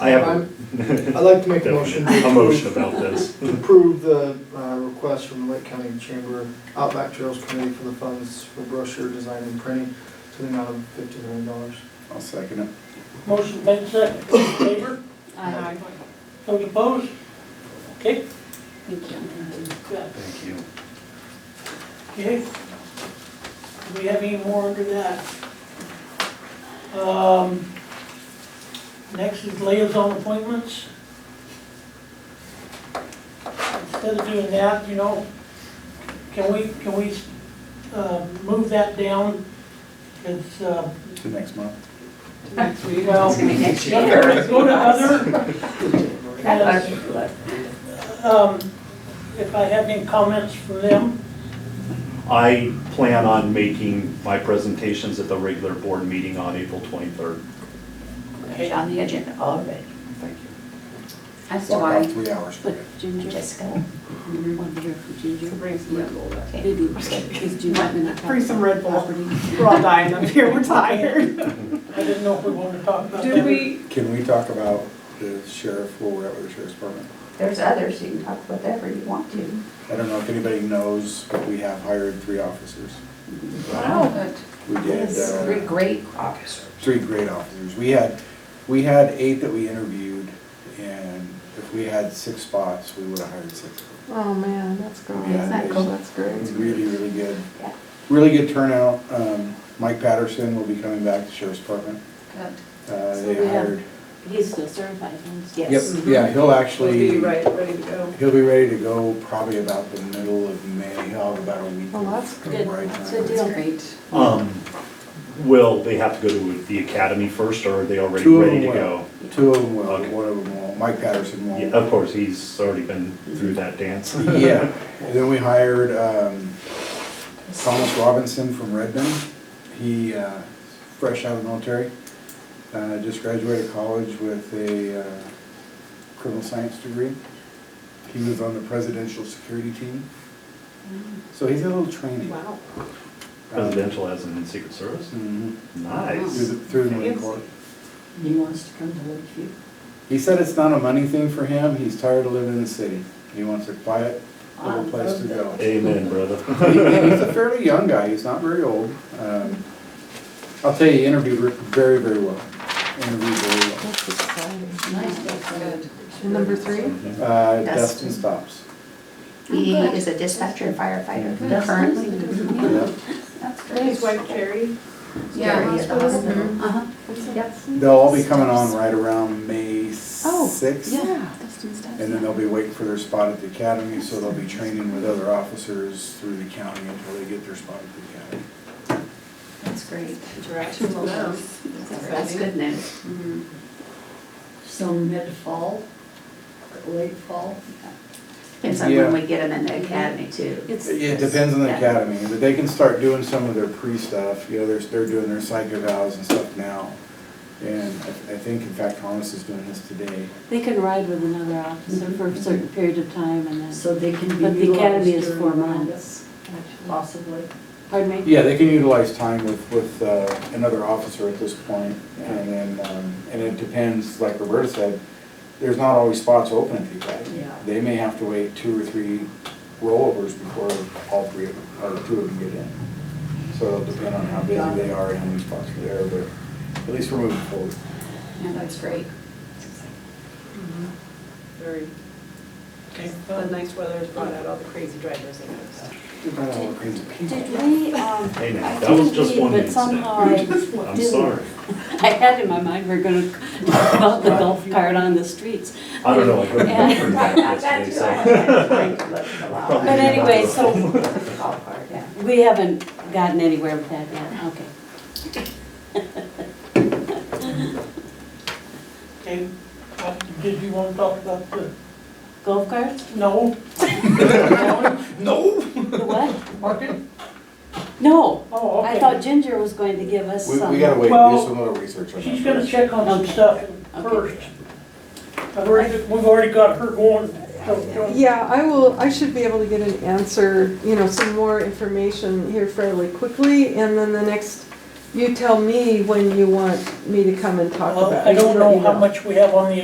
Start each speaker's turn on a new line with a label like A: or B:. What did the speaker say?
A: I have
B: I'd like to make a motion to
A: a motion
B: approve-
A: about this.
B: approve the uh, request from the Lake County Chamber Outback Trails Committee for the funds for brochure design and printing to the amount of fifty million dollars.
C: I'll second it.
D: Motion made second, All in favor,
E: Aye.
D: those opposed? Okay,
E: Thank you.
D: yeah,
A: Thank you.
D: okay. Do we have any more under that? Um, next is liaison appointments. Instead of doing that, you know, can we, can we, uh, move that down? It's, uh,
C: To next month.
E: Next week.
D: Well,
E: It's gonna be next
D: Yeah,
E: year.
D: let's Go to other,
E: That's what-
D: um, if I have any comments from them,
A: I plan on making my presentations at the regular board meeting on April 23rd.
E: It's on the agenda already.
A: Thank you.
E: That's
C: Block out
E: why,
C: Three hours for
E: but
C: it.
E: Jessica, you want to hear from Ginger?
F: Bring some Red Bull.
E: Okay. Because do you want me to talk
F: Bring some Red Bull.
E: property?
F: We're all dying up here, we're tired.
D: I didn't know if we wanted to talk about that.
F: Did we,
C: Can we talk about the sheriff, where we're at with the sheriff's department?
E: There's others, you can talk whatever you want to.
C: I don't know if anybody knows, but we have hired three officers.
E: Wow.
C: We did, uh,
E: Three great officers.
C: three great officers. We had, we had eight that we interviewed, and if we had six spots, we would have hired six.
G: Oh man, that's great.
C: Yeah,
E: Isn't that cool?
G: That's great.
C: It's really, really good.
E: Yeah.
C: Really good turnout. Um, Mike Patterson will be coming back to sheriff's department.
E: Good.
C: Uh,
H: So
C: They
H: we have-
C: hired. Mm-hmm.
H: He's still certified, huh?
C: Yep,
E: Yes.
C: yeah, he'll
F: we'll
C: actually.
F: be right, ready to go.
C: He'll be ready to go probably about the middle of May, he'll have about a week.
G: Oh, that's
C: of
H: good.
C: right
H: That's
C: time.
H: good deal.
E: Great.
A: Um, Will they have to go to the academy first, or are they already
C: Two of
A: ready to
C: them
A: go?
C: will. Two of them will,
A: Okay.
C: one of them won't, Mike Patterson
A: Yeah,
C: won't.
A: Of course, he's already been through that dance.
C: Yeah, and then we hired, um, Thomas Robinson from Redmond. He, uh, fresh out of the military, uh, just graduated college with a, uh, criminal science degree. He was on the presidential security team, so he's had a little training. Uh,
F: Wow.
A: Presidential as in Secret Service?
C: Mhm. Through
A: Nice.
C: the, through the Marine Corps.
E: He wants to come to Lakeview.
C: He said it's not a money thing for him, he's tired of living in the city. He wants a quiet, little place to go. And
A: Amen, brother.
C: he- and he's a fairly young guy, he's not very old. Um, I'll tell you, he interviewed re- very, very well. Interviewed very
G: That's exciting.
E: Nice, that's Oh, good.
G: And number three?
C: well. Uh,
E: Dustin.
C: Dustin Stops.
E: He is a dispatcher and firefighter currently.
C: Yeah.
E: That's
F: And his
E: great.
F: wife Carrie.
E: Yeah, he's at the
F: Hospital.
E: hospital. Uh-huh. Yep.
C: They'll all be coming on right around May
H: Oh,
C: sixth.
G: Yeah.
C: And then they'll be waiting for their spot at the academy, so they'll be training with other officers through the county until they get their spot at the academy.
E: That's great.
F: Interaction with them.
E: That's Mm-hmm. good news.
H: So mid-fall, or late fall?
E: Depends on when we get them in the academy too.
H: It's.
C: It depends on the
E: Yeah.
C: academy, but they can start doing some of their pre-stuff, you know, they're, they're doing their psych evals and stuff now. And I I think, in fact, Thomas is doing this today.
H: They can ride with another officer for a certain period of time and then,
E: So they can be
H: but the academy is
E: utilized
H: four
E: during-
H: months.
E: Possibly.
H: Pardon me?
C: Yeah, they can utilize time with, with uh, another officer at this point, and then, um, and it depends, like Roberta said, there's not always spots open at the academy.
H: Yeah.
C: They may have to wait two or three rollovers before all three of them, or two of them get in. So it'll depend on how busy they are and how many spots are there, but at least we're moving forward.
E: Yeah, that's great.
F: Very,
D: Okay,
F: the
D: um,
F: nice weather has brought out all the crazy drivers and stuff.
C: About all the crazy people.
I: Did we, um,
A: Hey, now,
I: I
A: that was
I: didn't
A: just one
I: read, but
A: incident.
I: somehow I
A: I'm
H: didn't.
A: sorry.
H: I had in my mind, we're gonna talk about the golf cart on the streets.
A: I don't know, I couldn't
H: And-
A: remember that yesterday, so.
E: But
H: But anyway, so
E: yeah.
H: we haven't gotten anywhere with that yet, okay.
D: okay, uh, did you want to talk about the,
H: Golf carts?
D: no?
C: No!
H: The what?
D: Market?
H: No,
D: Oh, okay.
H: I thought Ginger was going to give us
C: We,
H: some.
C: we gotta wait,
D: Well,
C: do some little research on that.
D: She's gonna
C: first.
D: check on some stuff first. I've already, we've already got her going. so- so-
G: Yeah, I will, I should be able to get an answer, you know, some more information here fairly quickly. And then the next, you tell me when you want me to come and talk
D: Well,
G: about it.
D: I don't
G: let
D: know
G: you
D: how much we have on the